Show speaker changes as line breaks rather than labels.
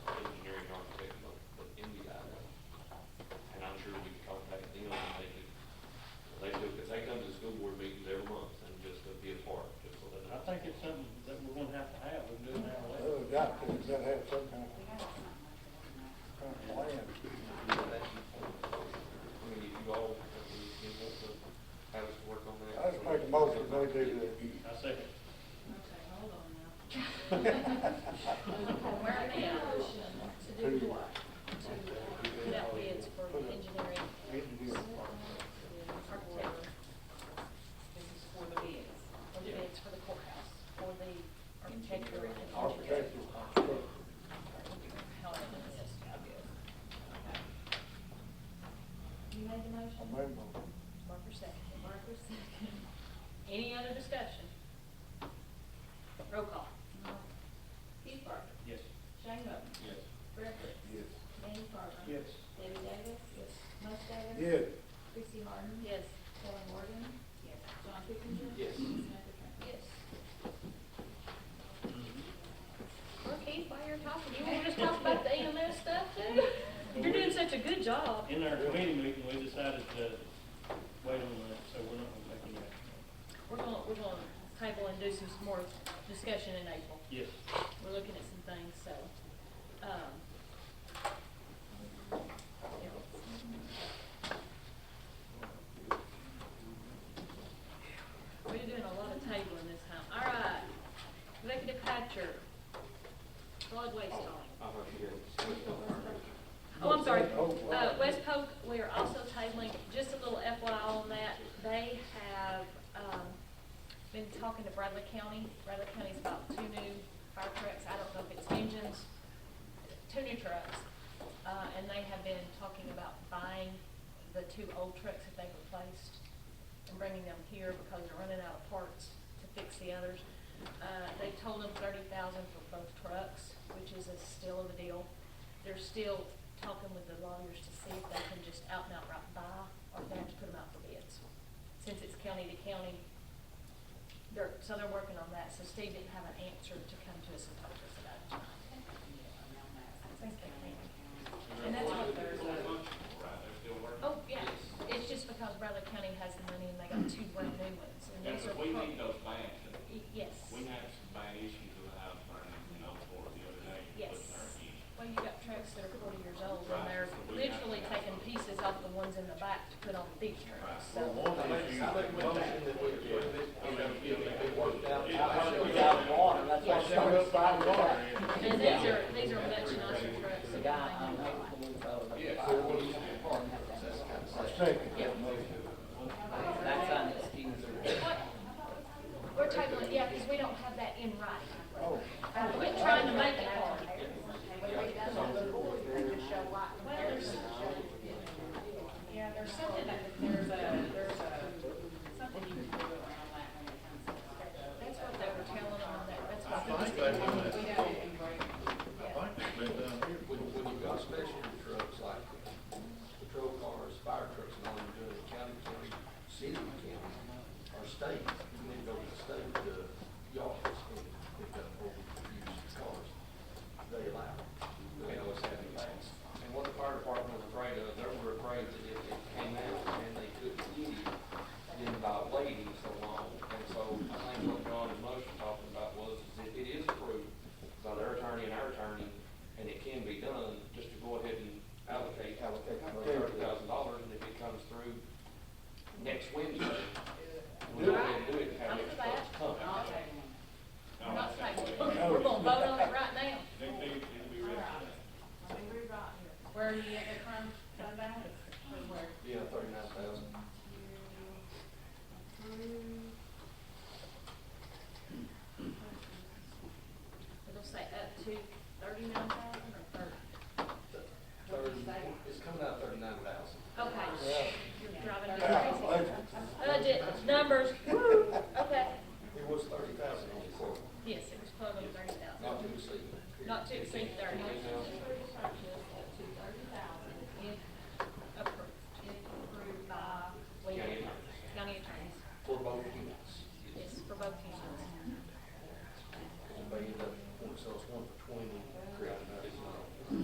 uh,
Griffith.
Yes.
Danny Carver.
Yes.
David Davis. Yes. Mush Davis.
Yes.
Chrissy Harden.
Yes.
Kelly Morgan. Yes. John Kipinger.
Yes.
Samantha Trent.
Yes. Well, Keith, while you're talking, you want to talk about the EMS stuff too? You're doing such a good job.
In our committee meeting, we decided to wait on that, so we're not gonna take any action.
We're gonna, we're gonna table and do some more discussion in April.
Yes.
We're looking at some things, so, um. yeah. We're doing a lot of tabling this time. All right. Executive Hatcher, solid waste hauling. Oh, I'm sorry. Uh, West Polk, we are also tabling, just a little FYI on that. They have, um, been talking to Bradley County. Bradley County's about two new fire trucks. I don't know if it's engines, two new trucks. Uh, and they have been talking about buying the two old trucks that they've replaced and bringing them here because they're running out of parts to fix the others. Uh, they told them thirty thousand for both trucks, which is a steal of a deal. They're still talking with the lawyers to see if they can just out and outright buy, or if they have to put them out for bids. Since it's county to county, they're, so they're working on that, so Steve didn't have an answer to come to us and talk to us about it tonight. Thank you. And that's what they're. Oh, yeah, it's just because Bradley County has the money and they got two brand new ones, and
Yeah,
those are.
but we
pro-
need those bans.
Y- Yes.
We had some bad issues with the house burning, you know, for the other day. with
Yes.
our heat.
Well, you got trucks that are forty years old and
Right.
they're
So we have to
literally
have
taking
some.
pieces off the ones in the back to put on these trucks, so.
Well, one issue-
I make a motion that we approve this, you know, if it worked out, I
Yeah.
think without water, that's why
I
it's
showed up by the water.
And these are, these are much nicer trucks.
The
than
guy,
they
I'm
have.
able to, uh,
Yeah.
fire, he's in the park, and have that.
I second
Yeah.
that motion.
That's unexcusable.
What, we're tabling, yeah, because we don't have that in writing.
Oh,
I quit trying to make it hard.
Well, there's, yeah, there's something, that- there's a, there's a, something you can do around that when it comes to. like, the-
That's what they were telling them on there, that's
I
what.
think they done that.
We have it in great.
I think they've been down here.
When, when you've got special trucks like patrol cars, fire trucks, and all you're doing in county, county, city, county, or state,